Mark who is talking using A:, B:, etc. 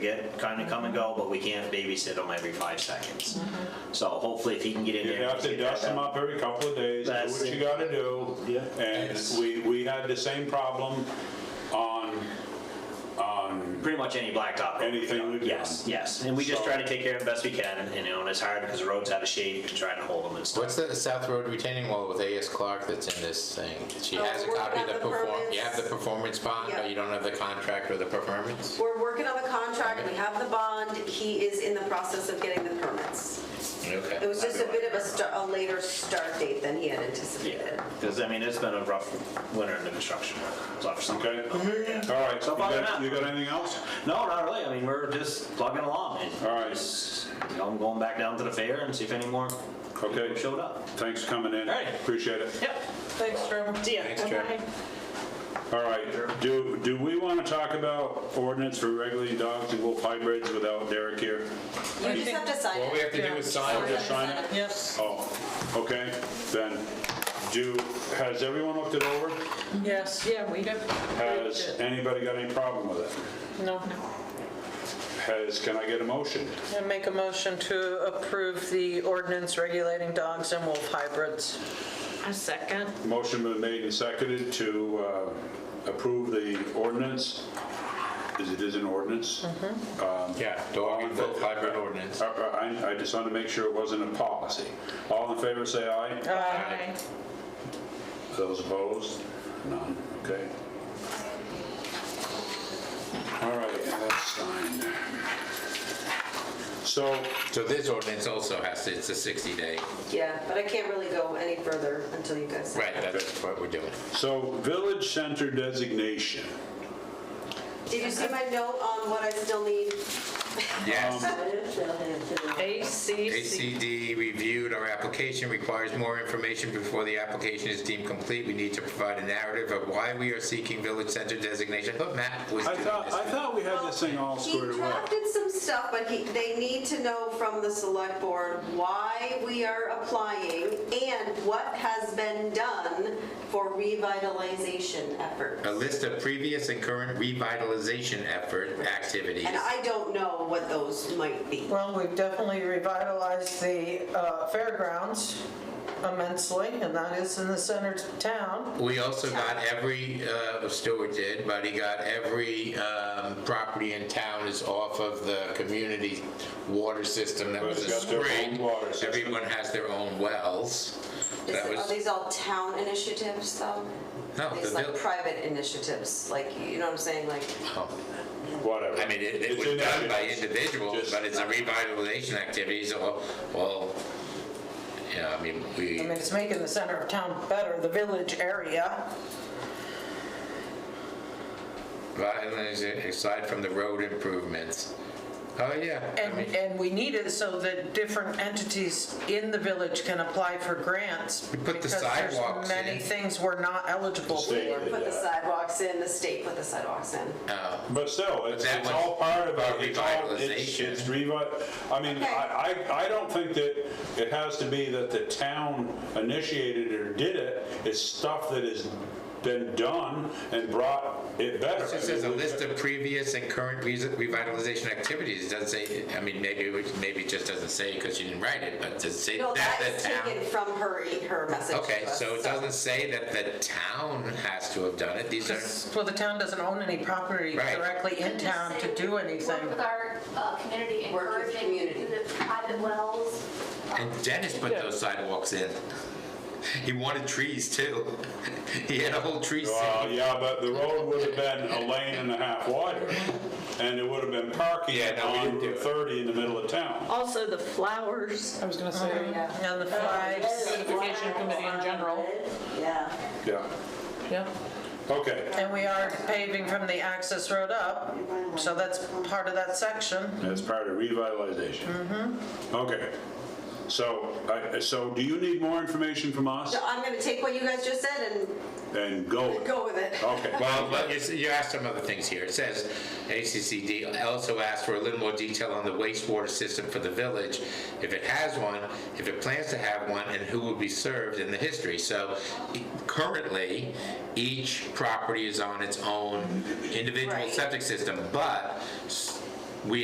A: get, kind of come and go, but we can't babysit them every five seconds.
B: Mm-hmm.
A: So hopefully if he can get in
C: You
A: there. and
C: have to
A: get that
C: dust them
A: done.
C: up every couple of days, do
A: That's
C: what
A: it.
C: you gotta do.
A: Yeah.
C: And we, we had the same problem on,
A: Pretty much any blacktop. road we've
C: Anything
A: done.
C: we've done.
A: Yes, yes, and we just
C: So-
A: try to take care of it best we can, and you know, and it's hard because the road's out of shape and trying to hold them and stuff.
D: What's the South Road retaining wall with AS Clark that's in this thing? She
E: Oh,
D: has a
E: we're
D: copy of
E: gonna
D: the
E: have the
D: perform,
E: permits.
D: you have the performance bond,
E: Yeah.
D: but you don't have the contract or the performance?
E: We're working on the contract, we have the bond, he is in the process of getting the permits. It
D: Okay.
E: was just a bit of a sta- a later start date than he had anticipated.
A: Because I mean, it's been a rough winter in the construction. It's rough for some-
C: okay?
A: Oh, Yeah.
C: All right,
A: So
C: you
A: far,
C: got,
A: not.
C: you got anything else?
A: No, not really. I mean, we're just plugging along and.
C: All right.
A: just, You know, I'm going back down to the fair and see if any more
C: Okay.
A: people showed up.
C: Thanks for coming in.
A: All right.
C: Appreciate it.
A: Yep.
B: Thanks, Trevor.
A: See ya.
D: Thanks, Trevor.
C: All right, do, do we wanna talk about ordinance for regulating dogs and wolf hybrids without Derek here?
E: You just have to sign
D: What we
E: it.
D: have to do is sign
C: I'll
D: it.
C: just sign it?
B: Yes,
C: Oh, okay, then, do, has everyone looked it over?
B: yes, yeah, we have.
C: Has anybody got any problem with it?
B: No.
C: Has, can I get a motion?
B: I make a motion to approve the ordinance regulating dogs and wolf hybrids. A second.
C: Motion been made and seconded to uh, approve the ordinance, is it is an ordinance?
D: Yeah, dog and wolf hybrid ordinance.
C: Uh, uh, I I just wanted to make sure it wasn't a policy. All in favor, say aye.
B: Aye.
C: Those opposed? None, okay. All right, that's signed. So,
D: So this ordinance also has to, it's a 60-day.
E: Yeah, but I can't really go any further until you guys. sign.
D: Right, that's what we're doing.
C: so village center designation.
E: Did you see my note on what I still need? Um,
D: Yes.
B: ACC.
D: ACD reviewed our application, requires more information before the application is deemed complete. We need to provide a narrative of why we are seeking village center designation. But Matt was
C: I
D: doing
C: thought, I
D: this.
C: thought we had this thing all squared
E: He
C: away.
E: drafted some stuff, but he, they need to know from the select board why we are applying and what has been done for revitalization efforts.
D: A list of previous and current revitalization effort activities.
E: And I don't know what those might be.
B: Well, we've definitely revitalized the uh, fairgrounds immensely, and that is in the center of town.
D: We also got every, uh, Stuart did, but he got every um, property in town is off of the community water system that was a
C: Everybody's got their own
D: spring.
C: water system.
D: Everyone has their own wells.
E: Is-
D: That
E: Are
D: was,
E: these all town initiatives though?
D: No,
E: These
D: the
E: like
D: vill-
E: private initiatives, like, you know what I'm saying, like,
D: oh.
C: Whatever.
D: I mean, it it
C: It's
D: was done by
C: initiatives.
D: individuals,
C: Just-
D: but it's a revitalization activity, so, well, yeah, I mean, we.
B: I mean, it's making the center of town better, the village area.
D: Violence aside from the road improvements. Oh, yeah. I
B: And,
D: mean,
B: and we need it so that different entities in the village can apply for grants.
D: We put the
B: Because
D: sidewalks
B: there's many
D: in.
B: things we're not eligible
C: The state.
B: for.
E: put the sidewalks in, the state put the sidewalks in.
D: uh,
C: But still, it's,
D: that
C: it's
D: one's
C: all part of
D: about
C: it. It's all- it's-
D: revitalization.
C: It's revi, I mean, I, I I don't think that it has to be that the town initiated or did it. It's stuff that has been done and brought it better.
D: It just says a list of previous and current re- revitalization activities, it doesn't say, I mean, maybe, it was- maybe it just doesn't say because you didn't write it, but to say
E: No, that
D: that
E: is
D: the town.
E: taken from her, e, her message to
D: Okay,
E: us,
D: so it doesn't say that the town has to have done it, these are,
B: Well, the town doesn't own any property
D: Right.
B: directly in town to do anything.
F: Work with our uh, community,
E: Work with
F: encouraging
E: community.
F: the private wells.
D: and Dennis put those sidewalks in. He wanted trees too. He had a whole tree
C: Well,
D: scene.
C: Uh, yeah, but the road would have been a lane and a half wider, and it would have been parking
D: Yeah, no, we
C: on
D: didn't do
C: Route
D: it.
C: 30 in the middle of town.
G: Also, the flowers.
B: I was gonna say. And the flags,
G: Beautification committee in general.
E: Yeah.
C: Yeah,
G: Yeah.
C: okay,
B: and we are paving from the access road up, so that's part of that section.
C: that's part of revitalization. Okay, so, I- so do you need more information from us?
E: So I'm gonna take what you guys just said and
C: And go.
E: go with it.
C: Okay,
D: Well, but you s- you asked some other things here. It says ACCD also asked for a little more detail on the wastewater system for the village, if it has one, if it plans to have one, and who will be served in the history. So e- currently, each property is on its own individual
E: Right.
D: septic system, but s-